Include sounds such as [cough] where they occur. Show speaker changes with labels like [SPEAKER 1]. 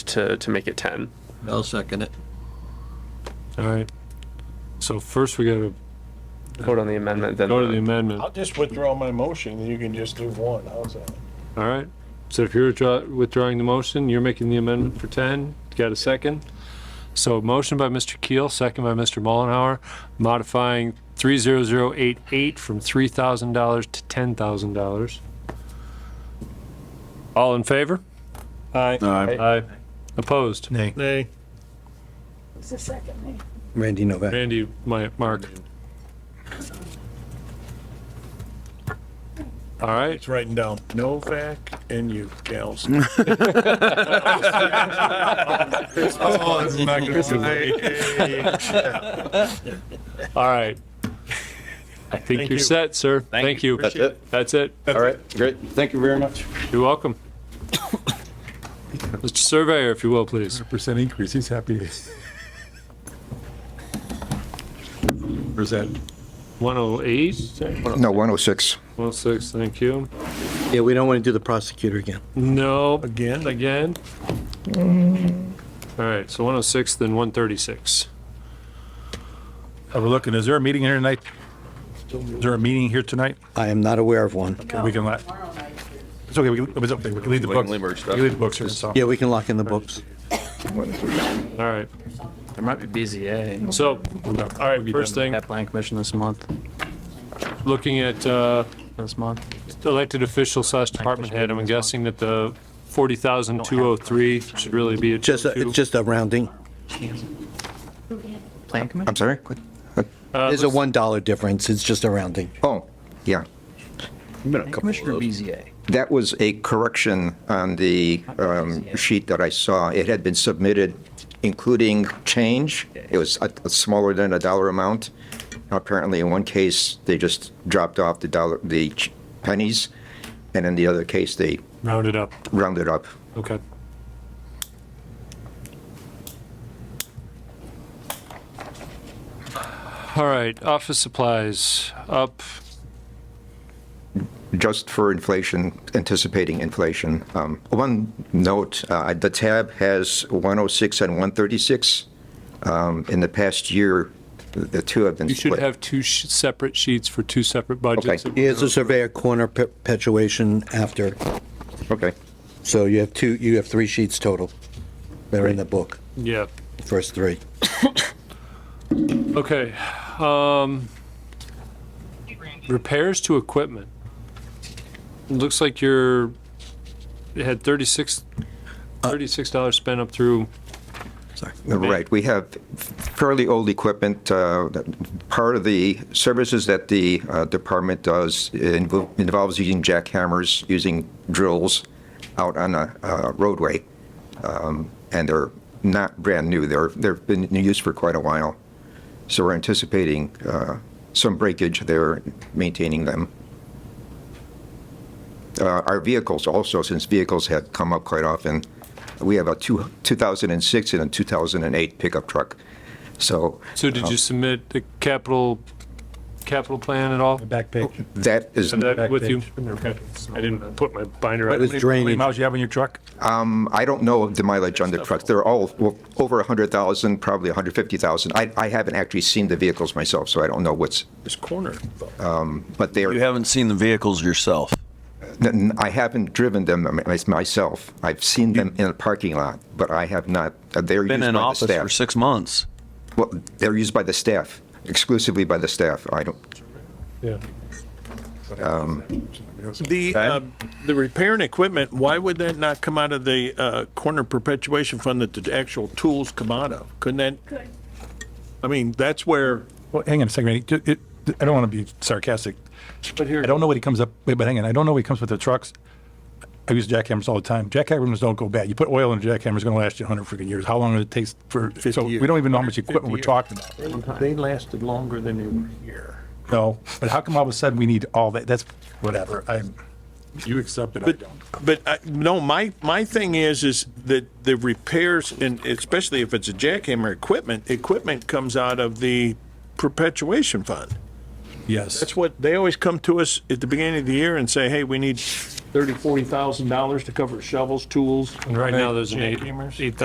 [SPEAKER 1] to, to make it 10.
[SPEAKER 2] I'll second it.
[SPEAKER 3] All right. So first we gotta
[SPEAKER 1] Vote on the amendment, then.
[SPEAKER 3] go to the
[SPEAKER 1] the-
[SPEAKER 3] amendment.
[SPEAKER 4] I'll just withdraw my motion, then you can just do one, how's that?
[SPEAKER 3] All right. So if you're withdraw- withdrawing the motion, you're making the amendment for 10. Got a second? So motion by Mr. Keel, second by Mr. Mullenhour, modifying 30088 from $3,000 to $10,000. All in favor?
[SPEAKER 4] Aye.
[SPEAKER 3] Aye. Opposed?
[SPEAKER 5] Nay.
[SPEAKER 4] Nay.
[SPEAKER 6] It's a second name.
[SPEAKER 5] Randy Novak.
[SPEAKER 3] Randy, my, Mark. All right.
[SPEAKER 4] It's writing down Novak and you,
[SPEAKER 7] [laughs]
[SPEAKER 4] gals.
[SPEAKER 3] All right. I think
[SPEAKER 4] Thank
[SPEAKER 3] you're
[SPEAKER 4] you.
[SPEAKER 3] set, sir. Thank you.
[SPEAKER 7] That's it.
[SPEAKER 3] That's it.
[SPEAKER 7] All right, great. Thank you very much.
[SPEAKER 3] You're welcome. Mr. Surveyor, if you will, please.
[SPEAKER 5] Percent increase, he's happy. Percent.
[SPEAKER 3] 108,
[SPEAKER 8] No, 106.
[SPEAKER 3] 106, thank you.
[SPEAKER 2] Yeah, we don't want to do the prosecutor again.
[SPEAKER 3] No,
[SPEAKER 4] Again, like,
[SPEAKER 3] again. All right, so 106, then 136.
[SPEAKER 9] We're looking, is there a meeting here tonight? Is there a meeting here tonight?
[SPEAKER 2] I am not aware of one.
[SPEAKER 9] We can let, it's okay, we can, it was okay, we can leave the
[SPEAKER 7] We can
[SPEAKER 9] books.
[SPEAKER 7] leave our
[SPEAKER 9] We
[SPEAKER 7] stuff.
[SPEAKER 9] can leave the books here, so.
[SPEAKER 2] Yeah, we can lock in the books.
[SPEAKER 3] All right,
[SPEAKER 10] There might be BZA,
[SPEAKER 3] so, all right, first thing,
[SPEAKER 10] that plan commission this month,
[SPEAKER 3] looking at uh,
[SPEAKER 10] this month.
[SPEAKER 3] elected official slash department head, I'm guessing that the 40,203 should really be a
[SPEAKER 2] Just, a- it's just a rounding.
[SPEAKER 10] Plan commission?
[SPEAKER 8] I'm sorry? What?
[SPEAKER 3] Uh,
[SPEAKER 2] There's a $1 difference, it's just a rounding.
[SPEAKER 8] Oh, yeah.
[SPEAKER 10] Plan commission or BZA?
[SPEAKER 8] That was a correction on the um, sheet that I saw. It had been submitted, including change. It was a- a smaller than a dollar amount. Apparently, in one case, they just dropped off the dollar, the ch- pennies, and in the other case, they
[SPEAKER 3] rounded up.
[SPEAKER 8] rounded up.
[SPEAKER 3] Okay. All right, office supplies up.
[SPEAKER 8] just for inflation, anticipating inflation. Um, One note, uh, the tab has 106 and 136. Um, In the past year, the- the two have been
[SPEAKER 3] You should
[SPEAKER 8] split.
[SPEAKER 3] have two sh- separate sheets for two separate budgets.
[SPEAKER 8] Okay.
[SPEAKER 2] Here's a surveyor corner perpetuation after,
[SPEAKER 8] Okay,
[SPEAKER 2] so you have two, you have three sheets total. They're in the book,
[SPEAKER 3] Yeah,
[SPEAKER 2] the first three.
[SPEAKER 3] okay. um, Repairs to equipment. Looks like you're, it had 36, Uh. $36 spent up through,
[SPEAKER 8] right. We have fairly old equipment. uh, that- Part of the services that the uh, department does invo- involves using jackhammers, using drills out on a uh, roadway. Um, And they're not brand new. They're, they've been in use for quite a while. So we're anticipating uh, some breakage there, maintaining them. Uh, Our vehicles also, since vehicles have come up quite often, we have a two- 2006 and a 2008 pickup truck. So
[SPEAKER 3] so did you submit the capital, capital plan at all?
[SPEAKER 9] Back page.
[SPEAKER 8] that is,
[SPEAKER 3] Have that
[SPEAKER 9] Back
[SPEAKER 3] with you?
[SPEAKER 9] page.
[SPEAKER 3] Okay. I didn't put my binder
[SPEAKER 2] It was
[SPEAKER 3] up.
[SPEAKER 9] How many
[SPEAKER 2] drainage.
[SPEAKER 9] miles you have on your truck?
[SPEAKER 8] I don't know the mileage on the trucks. They're all well, over 100,000, probably 150,000. I I haven't actually seen the vehicles myself, so I don't know what's, um,
[SPEAKER 4] this corner.
[SPEAKER 8] but they're.
[SPEAKER 11] You haven't seen the vehicles yourself.
[SPEAKER 8] N- n- I haven't driven them my- myself. I've seen them in a parking lot, but I have not. uh, They're
[SPEAKER 11] Been
[SPEAKER 8] used
[SPEAKER 11] in
[SPEAKER 8] by
[SPEAKER 11] office
[SPEAKER 8] the
[SPEAKER 11] for
[SPEAKER 8] staff.
[SPEAKER 11] six months.
[SPEAKER 8] Well, they're used by the staff, exclusively by the staff. I don't.
[SPEAKER 3] Yeah.
[SPEAKER 4] The, uh, the repair and equipment, why would that not come out of the, uh, corner perpetuation fund that the actual tools come out of? Couldn't that? I mean, that's where,
[SPEAKER 9] Well, hang on a second, Randy. Ju- it- I don't want to be sarcastic.
[SPEAKER 3] But
[SPEAKER 9] I
[SPEAKER 3] here,
[SPEAKER 9] don't know what he comes up, wait, but hang on, I don't know what he comes with the trucks. I use jackhammers all the time. Jackhammers don't go bad. You put oil in a jackhammer, it's going to last you 100 freaking years. How long does it take for, so we
[SPEAKER 4] years.
[SPEAKER 9] don't even know how much equipment
[SPEAKER 4] 50
[SPEAKER 9] we're
[SPEAKER 4] years.
[SPEAKER 9] talking about.
[SPEAKER 4] they lasted longer than they were here.
[SPEAKER 9] No, but how come all of a sudden we need all that? That's whatever. I'm, you accept it, I
[SPEAKER 4] But,
[SPEAKER 9] don't.
[SPEAKER 4] but I, no, my, my thing is, is that the repairs and especially if it's a jackhammer equipment, equipment comes out of the perpetuation fund.
[SPEAKER 9] Yes.
[SPEAKER 4] That's what, they always come to us at the beginning of the year and say, hey, we need thirty, forty thousand dollars to cover shovels, tools.
[SPEAKER 3] right now, there's an eight,
[SPEAKER 4] Jackhammers.
[SPEAKER 3] eight